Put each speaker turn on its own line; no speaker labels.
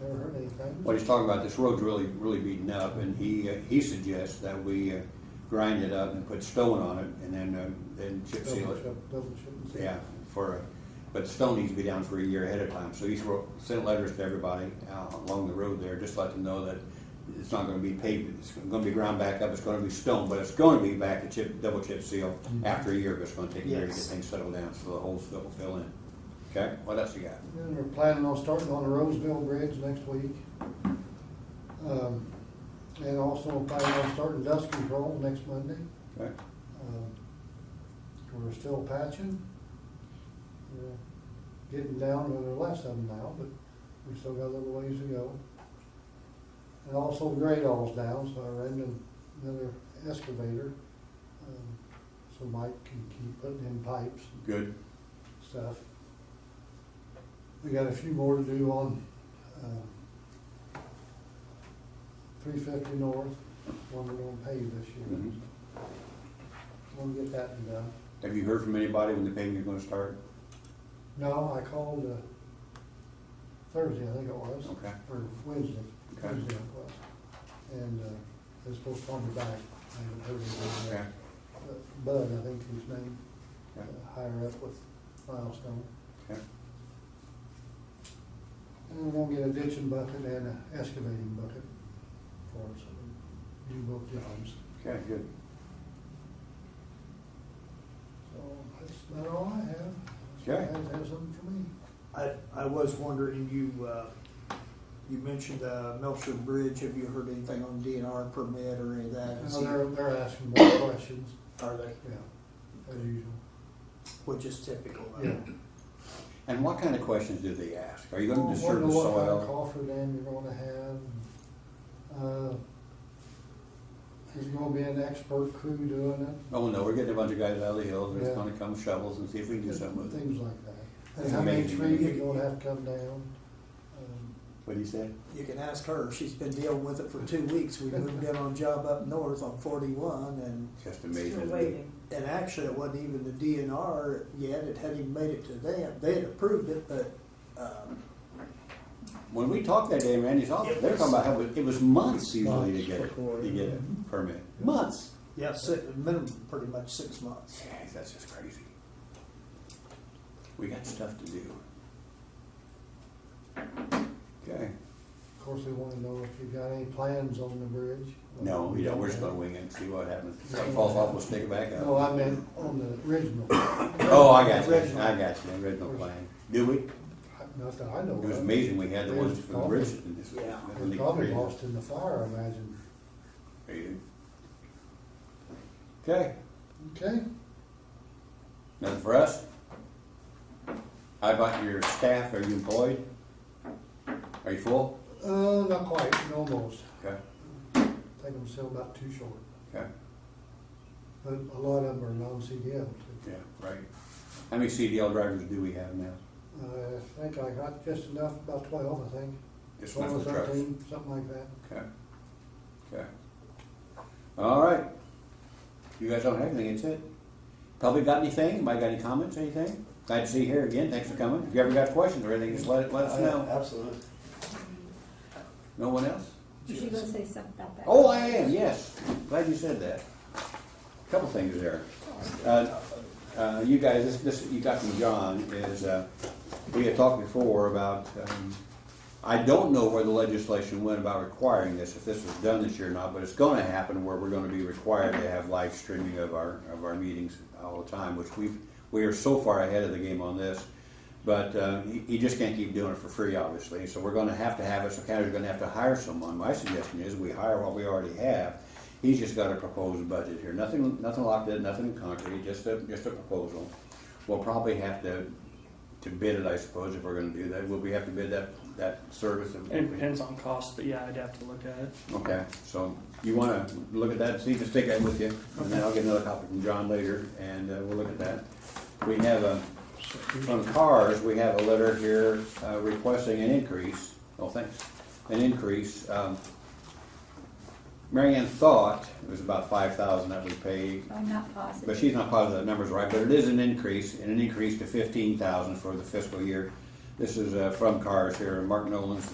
Never heard anything.
Well, he's talking about this road's really, really beaten up, and he, uh, he suggests that we uh, grind it up and put stone on it, and then, uh, then chip seal
Double
it.
chip, double chip and seal.
Yeah, for, but stone needs to be down for a year ahead of time, so he's wrote, sent letters to everybody uh, along the road there, just let them know that it's not gonna be paved, it's gonna be ground back up, it's gonna be stone, but it's gonna be back to chip, double chip seal after a year, but it's gonna take a year to get
Yes.
things settled down, so the holes will fill in. Okay, what else you got?
Then we're planning on starting on the Roseville Bridge next week. Um, And also planning on starting dust control next Monday.
Okay,
Um, We're still patching. We're Getting down to the last of them now, but we still got a little ways to go. And also grade all's down, so I ran in another excavator. um, So Mike can keep putting in pipes and
good,
stuff. We got a few more to do on, um, three fifty north, one we're gonna pave this year.
Mhm.
We'll get that one done.
Have you heard from anybody when the paving's gonna start?
No, I called, uh, Thursday, I think it was,
Okay,
or Wednesday,
Okay.
Wednesday it was. And, uh, they're supposed to call me back, I haven't heard anything
okay,
yet. But Bud, I think his name,
okay,
uh, higher up with Milestone.
okay,
And we'll get a ditching bucket and an excavating bucket for us, do both jobs.
okay, good.
So that's about all I have.
Okay.
Guys have something for me?
I, I was wondering, you, uh, you mentioned, uh, Melcher Bridge, have you heard anything on DNR permit or any of that? Is
Now,
he-
they're, they're asking more questions,
Are they,
yeah, as usual.
which is typical. I
Yeah.
mean.
And what kind of questions do they ask? Are you
Well,
gonna disturb
wonder
the
What kind of
soil?
coffer dam you're gonna have. and, uh, There's gonna be an expert crew doing it.
Oh, no, we're getting a bunch of guys out of the hills, and
Yeah.
it's gonna come shovels and see if we can do something with it.
Things like that.
That's
And how many
amazing.
trees are gonna have to come down. um,
What'd he say?
You can ask her, she's been dealing with it for two weeks, we moved in on a job up north on forty-one and,
Just amazing.
Still
isn't it?
waiting.
and actually it wasn't even the DNR yet, it hadn't even made it to them, they had approved it, but, um,
When we talked that day, Randy's office, they were talking about how it it was months usually to
Months
get it,
before,
to get a permit. Months.
yeah, si- minimum, pretty much six months.
Jeez, that's just crazy. We got stuff to do. Okay.
Of course, they wanna know if you've got any plans on the bridge.
No, we don't, we're just gonna wing it and see what happens. If something falls off, we'll stick it back
No,
up.
I meant on the original,
Oh, I got you,
Original.
I got you, original plan. Do we?
not that I know of.
It was amazing, we had the ones from the bridge. and this-
Yeah.
It
when
was
they
probably
created it.
lost in the fire, I imagine.
Okay,
Okay,
nothing for us? How about your staff, are you employed? Are you full?
uh, not quite, almost.
Okay,
I think I'm still about too short,
okay,
but a lot of them are non-CDL. too.
yeah, right. How many CDL drivers do we have now?
Uh, I think I got just enough, about twelve, I think.
Just
Twelve
enough
or
for trucks?
thirteen, Something like that.
Okay, okay. All right. You guys don't have anything, that's it. Probably got anything? Anybody got any comments, anything? Glad to see you here again, thanks for coming. If you ever got questions or anything, just let, it- let us know.
Absolutely.
No one else?
Was she gonna say something about that?
Oh, I am, yes. Glad you said that. Couple things there. Uh, uh, You guys, this, this, you got from John is, uh, we had talked before about, um, I don't know where the legislation went about requiring this, if this was done this year or not, but it's gonna happen where we're gonna be required to have live streaming of our, of our meetings all the time, which we've, we are so far ahead of the game on this. But uh, you you just can't keep doing it for free, obviously. So we're going to have to have it. So county's going to have to hire someone. My suggestion is we hire what we already have. He's just got a proposed budget here. Nothing, nothing locked in, nothing concrete. Just a just a proposal. We'll probably have to to bid it, I suppose, if we're going to do that. Will we have to bid that that service? if-
It depends on cost, but yeah, I'd have to look at it.
Okay, so you want to look at that, see, just take that with you, and then I'll get another copy from John later, and uh, we'll look at that. We have a, from CARS, we have a letter here uh, requesting an increase, oh, thanks, an increase. Um, Mary Ann thought it was about five thousand that we paid,
I'm not positive.
but she's not positive that number's right, but it is an increase, and an increase to fifteen thousand for the fiscal year. This is uh, from CARS here, Mark Nolan's